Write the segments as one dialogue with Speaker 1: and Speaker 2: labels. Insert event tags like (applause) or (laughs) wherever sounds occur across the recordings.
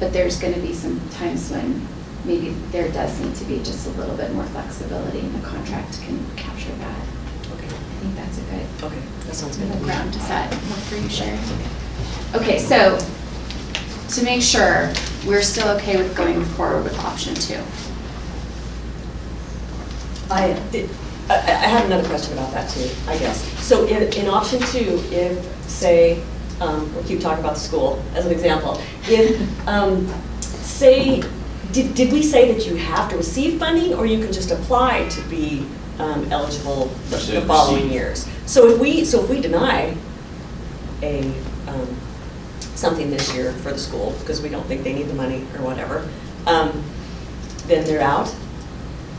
Speaker 1: But there's going to be some times when maybe there does need to be just a little bit more flexibility and the contract can capture that.
Speaker 2: Okay,
Speaker 1: I think that's a good
Speaker 2: okay, that sounds
Speaker 1: middle
Speaker 2: good.
Speaker 1: ground. Does that work for you, Sherry? Okay, so to make sure, we're still okay with going forward with option two.
Speaker 2: I, did- I I have another question about that too, I guess. So in, in option two, if, say, um, we'll keep talking about the school as an example. If, um, say, did, did we say that you have to receive funding or you can just apply to be um, eligible the-
Speaker 3: You said
Speaker 2: the following
Speaker 3: receive.
Speaker 2: years? So if we, so if we deny a, um, something this year for the school because we don't think they need the money or whatever, um, then they're out?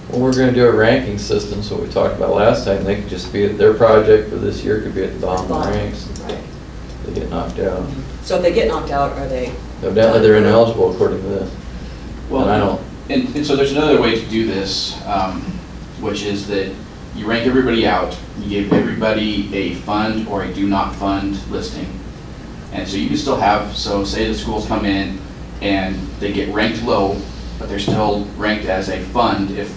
Speaker 4: Well, we're gonna do a ranking system, so we talked about last time, they could just be, at their project for this year could be at the bottom of the ranks,
Speaker 2: Right.
Speaker 4: they get knocked out.
Speaker 2: So if they get knocked out, are they?
Speaker 4: Evidently, they're ineligible according to this.
Speaker 3: Well,
Speaker 4: And I don't-
Speaker 3: And, and so there's another way to do this, um, which is that you rank everybody out, you give everybody a fund or a do not fund listing. And so you can still have, so say the schools come in and they get ranked low, but they're still ranked as a fund if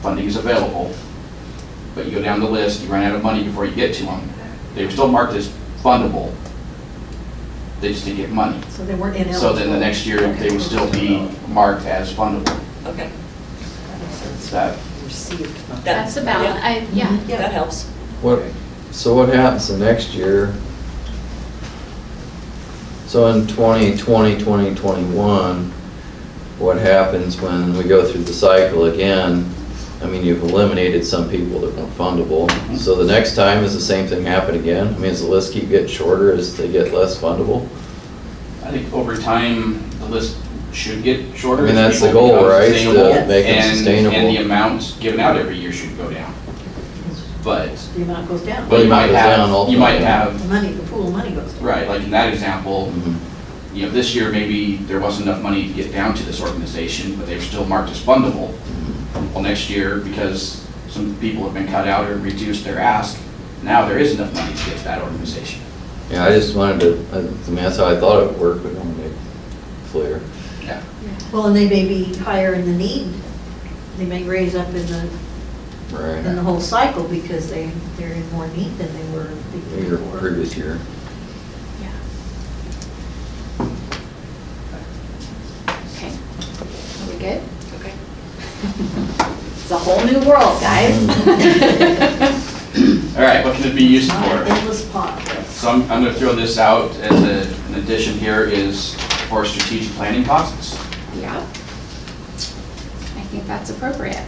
Speaker 3: funding is available. But you go down the list, you run out of money before you get to them, they were still marked as fundable. They just didn't get money.
Speaker 5: So they weren't ineligible.
Speaker 3: So then the next year, they would still be marked as fundable.
Speaker 2: Okay.
Speaker 3: Is that,
Speaker 5: Received funds.
Speaker 2: That-
Speaker 1: That's a balance,
Speaker 2: yeah.
Speaker 1: I, yeah.
Speaker 5: Yeah.
Speaker 2: That helps.
Speaker 4: What, so what happens the next year? So in 2020, 2021, what happens when we go through the cycle again? I mean, you've eliminated some people that weren't fundable, so the next time, is the same thing happen again? I mean, does the list keep getting shorter as they get less fundable?
Speaker 3: I think over time, the list should get shorter.
Speaker 4: I mean,
Speaker 3: as
Speaker 4: that's the
Speaker 3: people
Speaker 4: goal,
Speaker 3: become
Speaker 4: right? To
Speaker 3: sustainable,
Speaker 4: make them
Speaker 3: and-
Speaker 4: sustainable.
Speaker 3: And the amount given out every year should go down. But,
Speaker 5: The amount goes down.
Speaker 3: but you might
Speaker 4: goes down
Speaker 3: have, you
Speaker 4: ultimately.
Speaker 3: might
Speaker 5: The
Speaker 3: have,
Speaker 5: money, the pool of money goes down.
Speaker 3: right, like in that example,
Speaker 4: Mhm.
Speaker 3: you know, this year, maybe there wasn't enough money to get down to this organization, but they were still marked as fundable. Well, next year, because some people have been cut out or reduced their ask, now there is enough money to get to that organization.
Speaker 4: Yeah, I just wanted to, I I mean, that's how I thought it would work, but I wanted to make it clear.
Speaker 3: Yeah.
Speaker 5: Well, and they may be higher in the need. They may raise up in the, in the
Speaker 4: Right.
Speaker 5: whole cycle because they, they're in more need than they were the year
Speaker 4: Your
Speaker 5: before.
Speaker 4: previous year.
Speaker 1: Yeah. Okay, are we good?
Speaker 2: Okay.
Speaker 1: It's a whole new world, guys.
Speaker 4: (laughs)
Speaker 3: All right, what can it be used
Speaker 5: Not an
Speaker 3: for?
Speaker 5: endless pot.
Speaker 3: So I'm, I'm gonna throw this out as a, an addition here is for strategic planning costs.
Speaker 1: Yeah. I think that's appropriate.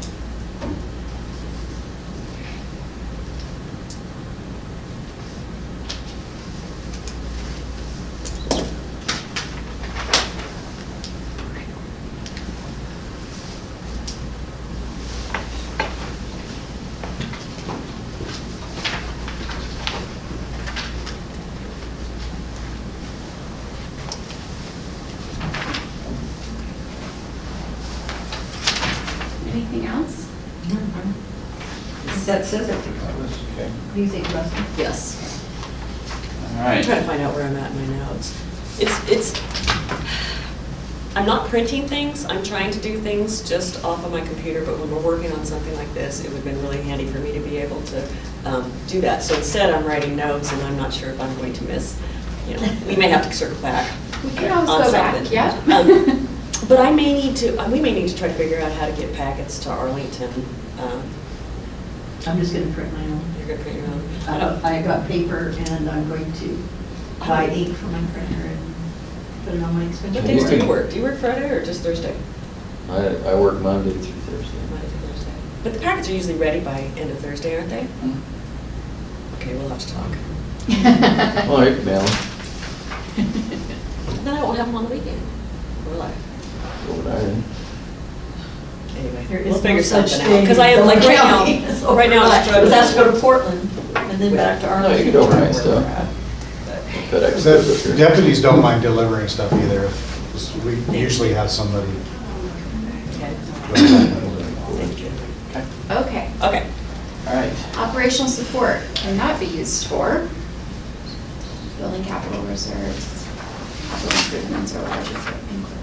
Speaker 1: Anything else?
Speaker 5: That says it.
Speaker 3: Okay.
Speaker 5: What do you think, Russell?
Speaker 2: Yes.
Speaker 3: All
Speaker 2: I'm trying to
Speaker 3: right,
Speaker 2: find out where I'm at in my notes. It's, it's, I'm not printing things, I'm trying to do things just off of my computer, but when we're working on something like this, it would have been really handy for me to be able to um, do that. So instead, I'm writing notes, and I'm not sure if I'm going to miss, you know, we may have to circle back.
Speaker 1: We can always
Speaker 2: On
Speaker 1: go back,
Speaker 2: something.
Speaker 1: yeah.
Speaker 2: Um, But I may need to, uh, we may need to try to figure out how to get packets to Arlington. Um,
Speaker 5: I'm just gonna print my own.
Speaker 2: You're gonna print your own? I
Speaker 5: Uh,
Speaker 2: don't-
Speaker 5: I got paper and I'm going to buy ink for my printer and put it on my
Speaker 2: What
Speaker 5: expense.
Speaker 2: days
Speaker 4: But there's
Speaker 2: do you
Speaker 4: Working.
Speaker 2: work? Do you work Friday or just Thursday?
Speaker 4: I, I work Monday through Thursday.
Speaker 2: Monday through Thursday. But the packets are usually ready by end of Thursday, aren't they?
Speaker 3: Mhm.
Speaker 2: Okay, we'll have to talk.
Speaker 1: (laughs)
Speaker 4: Well, you can mail them,
Speaker 2: Then I won't have them on the weekend. We're live.
Speaker 4: go with iron.
Speaker 2: Anyway,
Speaker 5: There
Speaker 2: we'll
Speaker 5: is no
Speaker 2: figure
Speaker 5: such
Speaker 2: something out.
Speaker 5: thing
Speaker 2: Because I
Speaker 5: as
Speaker 2: am, like, right
Speaker 5: (laughs) overnight. It's
Speaker 2: now, right now,
Speaker 5: overnight.
Speaker 2: I'm
Speaker 5: Because that's go
Speaker 2: struggling.
Speaker 5: to Portland and then back to
Speaker 4: No, you
Speaker 5: Arlington.
Speaker 4: can overnight
Speaker 5: Where we're
Speaker 4: stuff.
Speaker 5: at.
Speaker 4: FedEx goes
Speaker 6: The
Speaker 4: up here.
Speaker 6: Deputies don't mind delivering stuff either. We usually have somebody.
Speaker 2: Okay, Thank you.
Speaker 1: Okay,
Speaker 2: Okay.
Speaker 3: all right.
Speaker 1: operational support cannot be used for building capital reserves, capital improvements or large equipment.